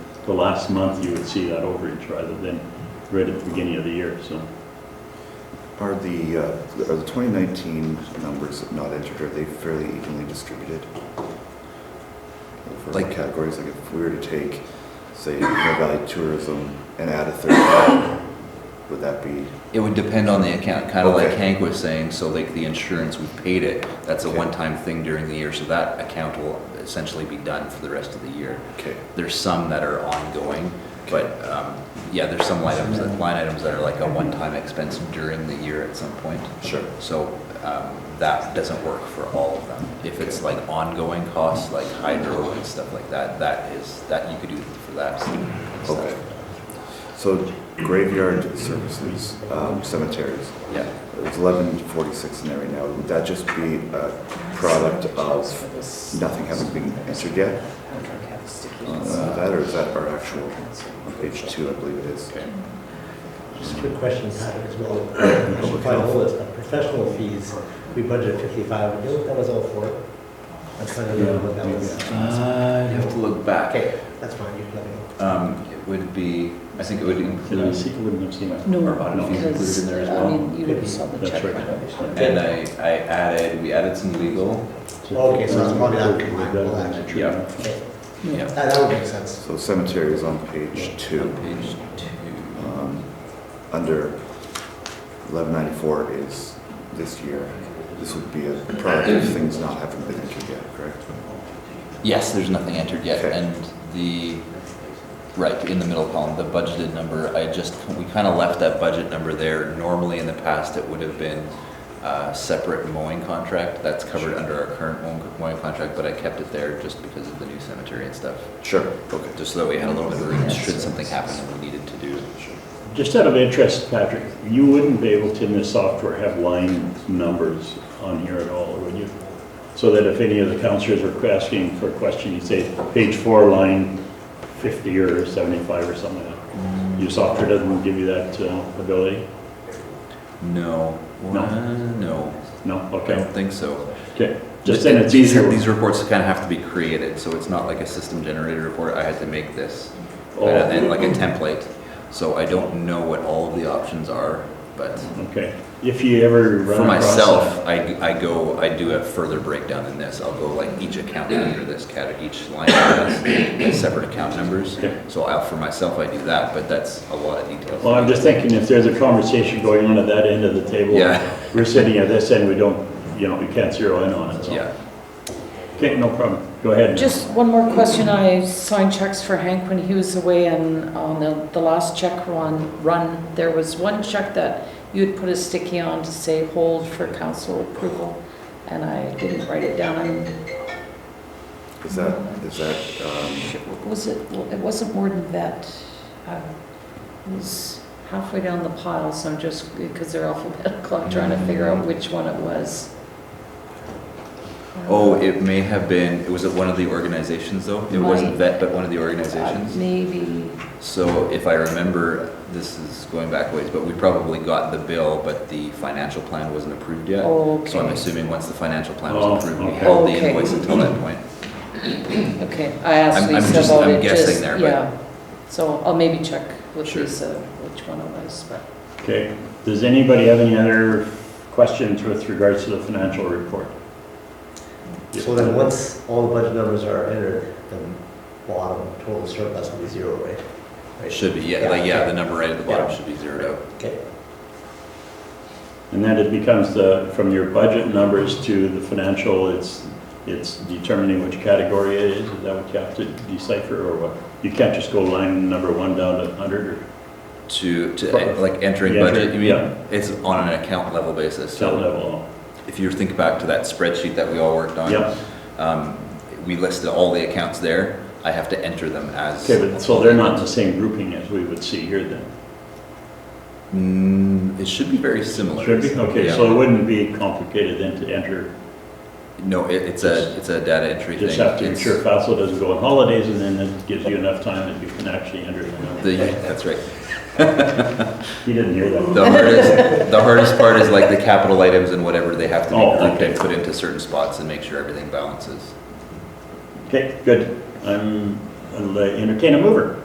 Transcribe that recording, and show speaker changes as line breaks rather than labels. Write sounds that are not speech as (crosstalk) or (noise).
the last month, you would see that overage rather than right at the beginning of the year, so.
Are the, uh, are the 2019 numbers not entered, are they fairly evenly distributed? For
Like-
categories, like if we were to take, say, Mill Valley Tourism and add a third one, would that be,
It would depend on the account, kind of like
Okay.
Hank was saying, so like the insurance, we paid it, that's a
Okay.
one-time thing during the year, so that account will essentially be done for the rest of the year.
okay,
There's some that are ongoing, but, um, yeah, there's some line items, that- line items that are like a one-time expense during the year at some point.
sure.
So, um, that doesn't work for all of them. If it's like ongoing costs, like hydro and stuff like that, that is, that you could do for that stuff.
Okay. So graveyard services, um, cemeteries,
Yeah,
there's 1146 in there right now. Would that just be a product of nothing having been entered yet? Uh, That, or is that our actual, on page two, I believe it is?
okay.
Just a quick question, Pat, as well. I should probably know this, but professional fees, we budgeted 55, do you know what that was all for? I'm trying to remember uh, what that was.
Uh, you have to look back.
Okay, that's fine, you can let me know.
Um, it would be, I think it would
Did I
include,
see, wouldn't have seen that?
No,
Or about it, if you include it in
because,
there as
I
well.
mean, you would have saw the
That's
check.
right.
and I, I added, we added some legal.
Okay, so it's probably not combined, well, actually.
Yeah.
Okay,
Yeah.
That that would make sense.
So cemetery is on page two.
Page two.
Um, Under 1194 is this year. This would be a product of things not having been entered yet, correct?
Yes, there's nothing entered yet,
Okay.
and the, right, in the middle column, the budgeted number, I just, we kind of left that budget number there. Normally, in the past, it would have been a separate mowing contract, that's covered under our current mowing- mowing contract, but I kept it there just because of the new cemetery and stuff.
Sure, okay.
Just so that we had a little bit of room, should something happen that we needed to do.
Just out of interest, Patrick, you wouldn't be able to in this software have line numbers on here at all, would you? So that if any of the counselors are asking for a question, you say page four, line 50 or 75 or something like that. Your software doesn't give you that uh, ability?
No.
No.
Uh, No,
No?
I
Okay,
don't think so.
okay. Just then it's
These,
easier.
these reports kind of have to be created, so it's not like a system generated report, I had to make this.
Oh.
And like a template, so I don't know what all of the options are, but
Okay. If you ever
for
run across that.
myself, I, I go, I do a further breakdown than this, I'll go like each account under this category, each line has separate account numbers.
Okay.
So I, for myself, I do that, but that's a lot of details.
Well, I'm just thinking if there's a conversation going on at that end of the table.
Yeah.
We're sitting at this end, we don't, you know, we can't zero in on it, so.
Yeah,
Okay, no problem. Go ahead.
Just one more question, I signed checks for Hank when he was away, and on the, the last check run, run, there was one check that you had put a sticky on to say hold for council approval, and I didn't write it down, and
Is that, is that, um,
what was it, Well, it wasn't more than that, Uh, it was halfway down the pile, so I'm just, because they're (laughs) alphabetical, I'm trying to figure out which one it was. Um,
oh, it may have been, was it one of the organizations though? It wasn't
Might.
VET, but one of the
Uh,
organizations?
Maybe,
So if I remember, this is going back ways, but we probably got the bill, but the financial plan wasn't approved yet.
Okay.
So I'm assuming once the financial plan
Oh,
was approved, we
okay.
held the
Okay.
invoice until that point.
okay, I asked
I'm- I'm
Lisa
just-
about
I'm
it,
guessing
just,
there, but-
yeah. So I'll maybe check with
Sure.
Lisa which one it was, but.
Okay, does anybody have any other questions with regards to the financial report?
So then, once all the budget numbers are entered, then bottom total surplus will be zero, right?
It
Right.
should be, yeah, like, yeah, the number right at the bottom
Yeah.
should be zeroed out.
Okay,
And then it becomes the, from your budget numbers to the financial, it's, it's determining which category it is, is that what you have to decipher, or what? You can't just go line number one down to 100, or
To,
Pro-
to, like, entering
Yeah,
budget, you mean,
yeah.
it's on an account level basis.
cell
So
level?
if you think back to that spreadsheet that we all worked on.
Yep,
Um, we listed all the accounts there. I have to enter them as.
okay, but, so they're not in the same grouping as we would see here then?
Mm, it should be very similar.
Should be, okay,
Yeah.
so it wouldn't be complicated then to enter,
No, it, it's a, it's a data entry thing.
just have to
It's-
ensure FASL doesn't go on holidays, and then it gives you enough time that you can actually enter the number.
The, that's right.
He didn't hear that.
The hardest, the hardest part is like the capital items and whatever, they have to
Oh,
be grouped
okay.
and put into certain spots and make sure everything balances.
Okay, good. I'm, I'll uh, entertain a mover.